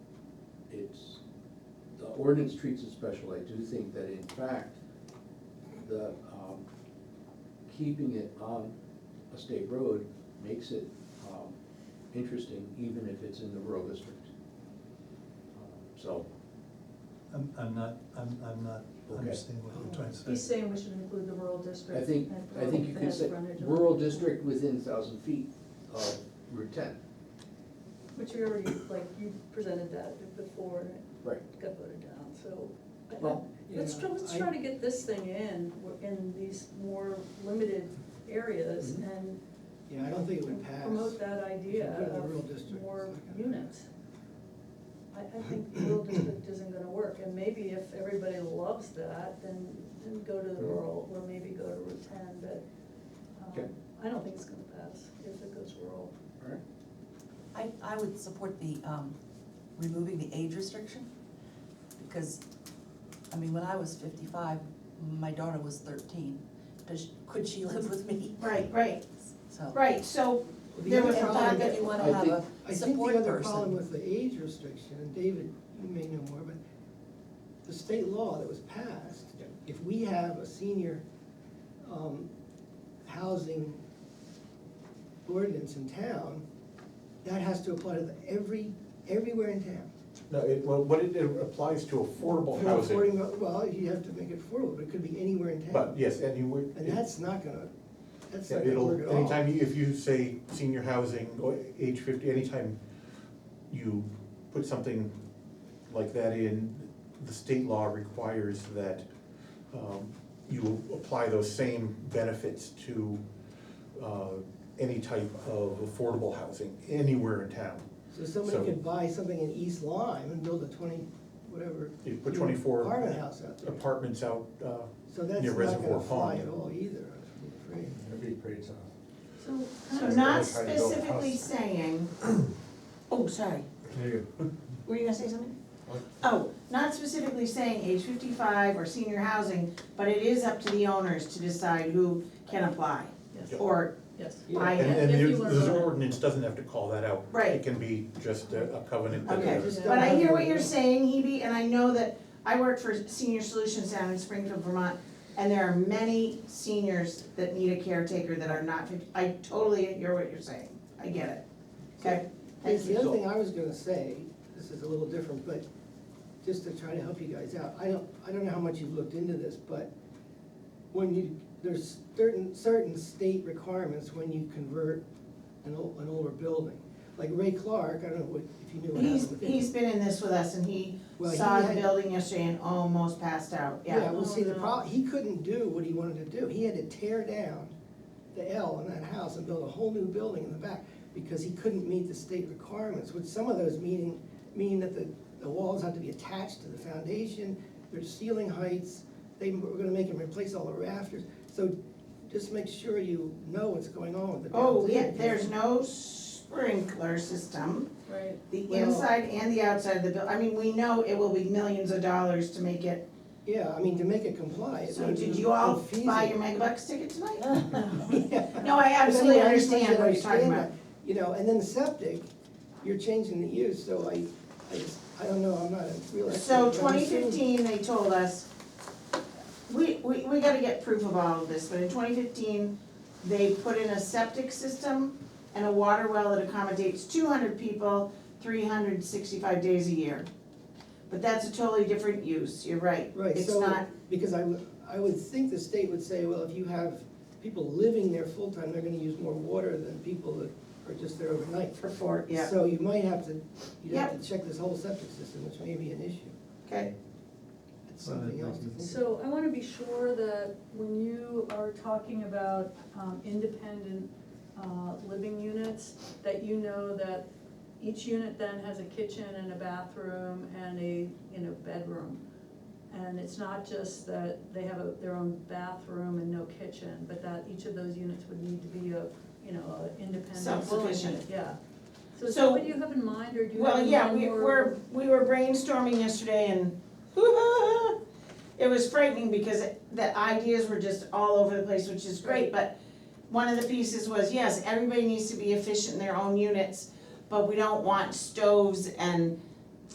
ordinance treats it special, I do think that in fact, the, um, keeping it on a state road makes it, um, interesting, even if it's in the rural district. Um, So, I'm, I'm not, I'm, I'm not Okay. understanding what you're trying to He's say. saying we should include the rural I district. think, and I think you that could has say frontage on- rural district within thousand feet of Route ten. Which we already, like, you presented that before, and Right. it got voted down, so. I- Well, Let's try, let's try to get this thing in, in these more limited areas Mm-hmm. and Yeah, I don't think it would pass. promote that idea If you put it in the rural district, of it's more not gonna units. I, I think the rural district isn't gonna work, and maybe if everybody loves that, then, then go to the rural, or maybe go to Route ten, but, Okay. um, I don't think it's gonna pass if it goes rural. All right. I, I would support the, um, removing the age restriction, because, I mean, when I was fifty-five, my daughter was thirteen, does, she- could she live with me? Right, right, So. right, so Well, the there other was a And problem lot fact, with- that if you wanna I have think- a I think support the other person. problem with the age restriction, and David, you may know more, but the state law that was passed, if we have a senior, um, housing ordinance in town, that has to apply to the- every, everywhere in town. No, it, well, what it, it applies to affordable For housing, affording- Well, you have to make it affordable, but it could be anywhere in town. but yes, and you would. And that's not gonna, that's Yeah, not gonna work at It'll, all. anytime, you- if you say senior housing, or age fifty, anytime you put something like that in, the state law requires that um, you apply those same benefits to uh, any type of affordable housing anywhere in town. So somebody So- could buy something in East Lyme and build a twenty, whatever. You put unit twenty-four Apartment house out there. apartments out uh, So that's near not Reservoir gonna fly Pond. at all either, I'm afraid. Every parade's off. So, So Sorry, not I tried to build a specifically house. saying, oh, sorry, There you go. were you gonna say something? What? Oh, not specifically saying age fifty-five or senior housing, but it is up to the owners to decide who can apply yes, or yes. buy And, it. and If you there's, were there's an voted. ordinance doesn't have to call that out. Right. It can be just a a covenant. that- Okay, Just but I don't hear have what you're one. saying, Hebe, and I know that, I work for Senior Solutions down in Springfield, Vermont, and there are many seniors that need a caretaker that are not, fif- I totally hear what you're saying, I get it, okay? Thank The you. other thing I was gonna say, this is a little different, but just to try to help you guys out, I don't, I don't know how much you've looked into this, but when you, there's certain, certain state requirements when you convert an old, an older building. Like Ray Clark, I don't know what, if you knew what He's, happened with him. he's been in this with us and he Well, saw he the had- building yesterday and almost passed out, Yeah, yeah. well, see, the Oh, no. problem, he couldn't do what he wanted to do, he had to tear down the L in that house and build a whole new building in the back, because he couldn't meet the state requirements, which some of those meaning, mean that the, the walls have to be attached to the foundation, there's ceiling heights, they were gonna make him replace all the rafters, so just make sure you know what's going on with the Oh, downstairs, yeah, there's no sprinkler system, Right, the Well- inside and the outside of the buil, I mean, we know it will be millions of dollars to make it. Yeah, I mean, to make it comply. it So would did be you all buy infeasible. your Mega Bucks ticket tonight? Yeah. No, I absolutely But anyway, I just want you understand to what you're talking understand about. that, You know, and then septic, you're changing the use, so I, I just, I don't know, I'm not a real expert. So but I'm twenty assuming- fifteen, they told us, we, we, we gotta get proof of all of this, but in twenty fifteen, they put in a septic system and a water well that accommodates two hundred people, three hundred sixty-five days a year. But that's a totally different use, you're right. Right, It's so- not, Because I would, I would think the state would say, well, if you have people living there full-time, they're gonna use more water than people that are just there overnight. for four, yeah, So you might have to, you'd have to check this whole septic system, which may be an issue, okay, it's something else to think about. So I wanna be sure that when you are talking about, um, independent, uh, living units, that you know that each unit then has a kitchen and a bathroom and a, you know, bedroom. And it's not just that they have a, their own bathroom and no kitchen, but that each of those units would need to be a, you know, a independent dwelling Self-sufficient. unit, yeah. So is So- that what you have in mind, or do you have Well, in yeah, mind we more- were, we were brainstorming yesterday and it was frightening because the ideas were just all over the place, which is great, but one of the pieces was, yes, everybody needs to be efficient in their own units, but we don't want stoves and